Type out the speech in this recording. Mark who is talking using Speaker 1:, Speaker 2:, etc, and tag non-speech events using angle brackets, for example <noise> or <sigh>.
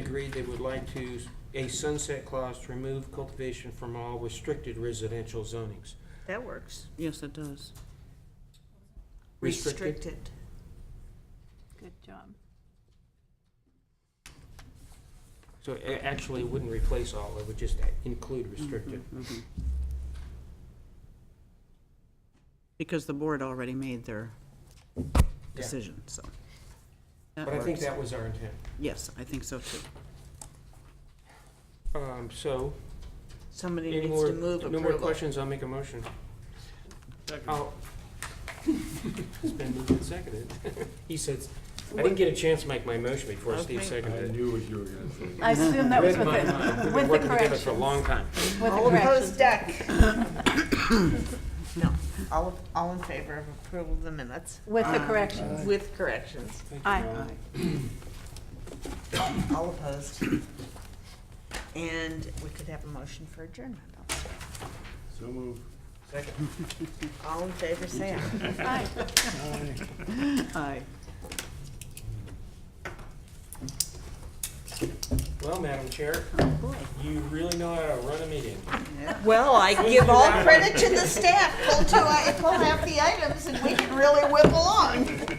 Speaker 1: agreed they would like to, a sunset clause to remove cultivation from all restricted residential zonings.
Speaker 2: That works.
Speaker 3: Yes, it does.
Speaker 1: Restricted,
Speaker 2: Restricted.
Speaker 4: Good job.
Speaker 1: so it actually wouldn't replace all, it would just include restricted.
Speaker 3: Mhm. Because the board already made their decision, so. That
Speaker 1: But I think
Speaker 3: works.
Speaker 1: that was our intent.
Speaker 3: Yes, I think so too.
Speaker 1: Um, so,
Speaker 2: Somebody
Speaker 1: any
Speaker 2: needs
Speaker 1: more,
Speaker 2: to move
Speaker 1: no more
Speaker 2: approval.
Speaker 1: questions, I'll make a motion. I'll- <laughs> It's been moved and seconded. <laughs> He said, I didn't get a chance to make my motion before Steve
Speaker 2: Okay.
Speaker 5: I
Speaker 1: seconded it.
Speaker 5: knew what you were gonna say.
Speaker 4: I assume that was
Speaker 1: Read
Speaker 4: with
Speaker 1: my mind.
Speaker 4: the,
Speaker 1: We've
Speaker 4: with
Speaker 1: been
Speaker 4: the
Speaker 1: working together
Speaker 4: corrections.
Speaker 1: for a long time.
Speaker 4: With the
Speaker 2: All opposed,
Speaker 4: corrections.
Speaker 2: deck. <coughs> No, all, all in favor of approval of the minutes
Speaker 4: With the corrections.
Speaker 2: with corrections.
Speaker 4: Aye.
Speaker 3: Aye.
Speaker 2: All opposed. And we could have a motion for adjournment.
Speaker 5: So move.
Speaker 1: Second.
Speaker 2: All in favor, say aye.
Speaker 4: Aye.
Speaker 3: Aye.
Speaker 1: Well, Madam Chair,
Speaker 3: Boy.
Speaker 1: you really know how to run a meeting.
Speaker 2: <laughs> Well, I give all credit to the staff. Pull two, i- pull half the items and we can really whip along.